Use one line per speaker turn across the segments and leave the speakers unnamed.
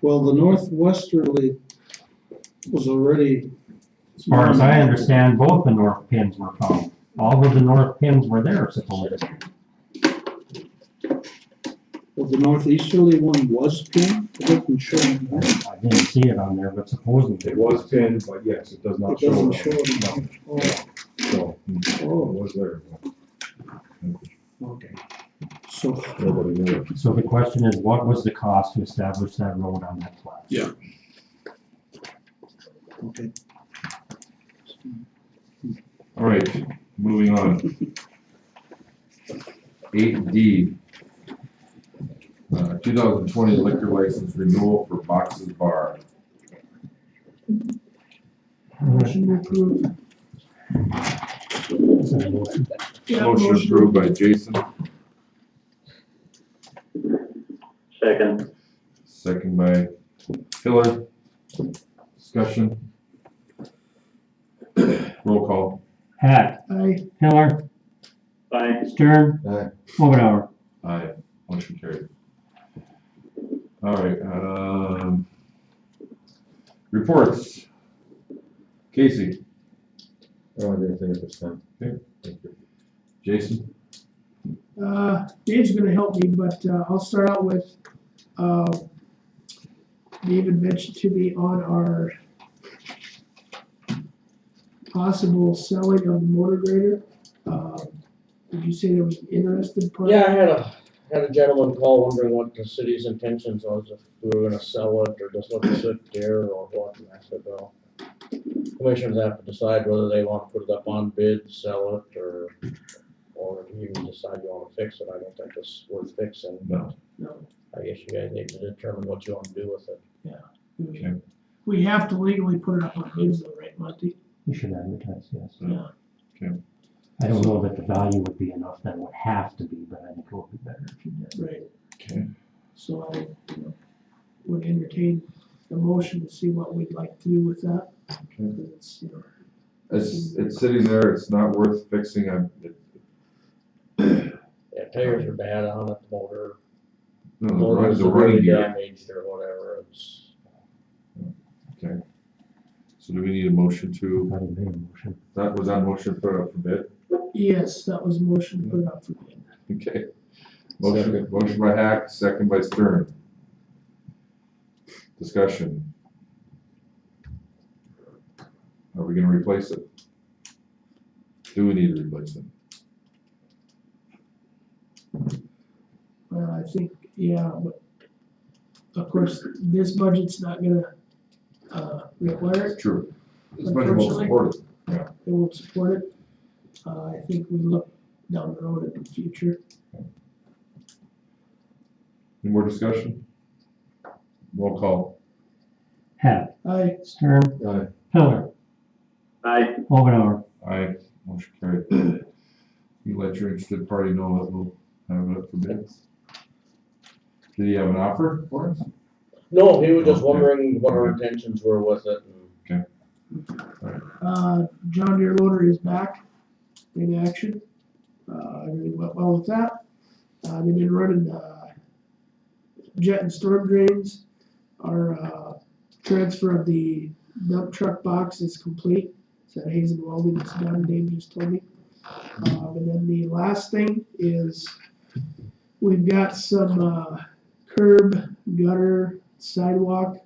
Well, the northwesterly was already.
As far as I understand, both the north pins were found. All of the north pins were there supposedly.
Well, the northeasterly one was pinned, it doesn't show, on there.
I didn't see it on there, but supposedly.
It was pinned, but yes, it does
it
not show.
doesn't
it
show.
on-
it on there.
So, it
hmm.
Oh,
was there. but
oh, okay. So,
Nobody knew it.
So the question is, what was the cost to establish that road on that plat?
Yeah. okay.
All right, moving on. Eight D. Uh, two thousand twenty liquor license renewal for Boxes Bar.
Is that a motion?
Motion approved by Jason,
Second.
second by Hiller. Discussion. Roll call.
Hack. Hiller.
Aye.
Stern.
Aye.
Over
Aye, motion carried. All right, um, reports. Casey,
I don't have anything at this time.
Okay.
Thank you.
Jason,
Uh, Dave's gonna help me, but, uh, I'll start out with, uh, David mentioned to me on our possible selling of the motor grader, uh, did you say there was an interested party?
Yeah, I had a, had a gentleman call wondering what the city's intentions was, if we were gonna sell it or just let it sit there or what, and I said, well. Commissioners have to decide whether they wanna put it up on bid, sell it, or, or if you decide you wanna fix it, I don't think it's worth fixing, but.
No.
I guess you guys need to determine what you wanna do with it.
We- We have to legally put it up on bids though, right, Monty?
We should advertise, yes.
Yeah.
Okay.
I don't know that the value would be enough, that would have to be, but I think it would be better if you did.
Right.
Okay.
So I, you know, would entertain the motion to see what we'd like to do with that.
Okay.
Because it's, you know,
it's, it's sitting there, it's not worth fixing, I'm, it-
Yeah, tires are bad on it, the motor,
no, the run-
motor's
the running
really
gear.
damaged or whatever, it's.
So do we need a motion to,
Probably made a motion.
that was on motion, put it up for bid?
Yes, that was motion to put it up for bid.
Okay. Motion, motion by Hack, second by Stern. Discussion. Are we gonna replace it? Do we need to replace it?
Well, I think, yeah, but of course, this budget's not gonna, uh, require it,
True. This budget will support it.
it won't support it. Uh, I think we look down the road in the future.
Any more discussion? Roll call.
Hack.
I,
Stern.
Aye.
Hiller.
Aye.
Over.
Aye, motion carried. You let your interested party know that we'll have it up for bids. Did he have an offer for us?
No, he was just
Okay.
wondering what our intentions were with it and
uh, John Deere loader is back in action. Uh, everything went well with that. Uh, they've been running, uh, jet and storm drains. Our, uh, transfer of the dump truck box is complete. So Hayes and Welding is done, Dave just told me. Um, and then the last thing is we've got some, uh, curb, gutter, sidewalk,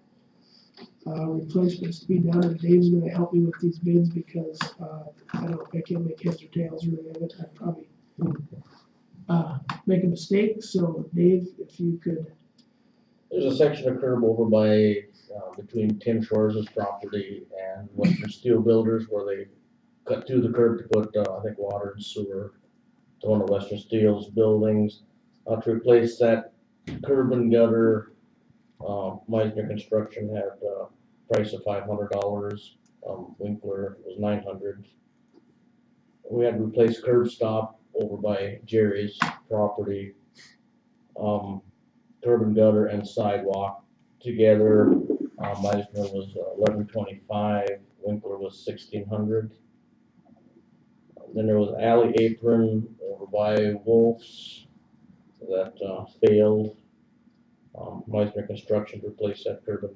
uh, replacements to be done, and Dave's gonna help me with these bids because, uh, I don't, I can't make heads or tails really of it, I probably uh, make a mistake, so Dave, if you could,
There's a section of curb over by, uh, between Tim Shores's property and Western Steel Builders where they cut through the curb to put, uh, I think, water and sewer to one of Western Steel's buildings. Uh, to replace that curb and gutter, uh, Meisner Construction had a price of five hundred dollars, um, Winkler was nine hundred. We had to replace curb stop over by Jerry's property. Um, curb and gutter and sidewalk together. Uh, Meisner was eleven twenty-five, Winkler was sixteen hundred. Then there was alley apron over by Wolf's that, uh, failed. Um, Meisner Construction replaced that curb and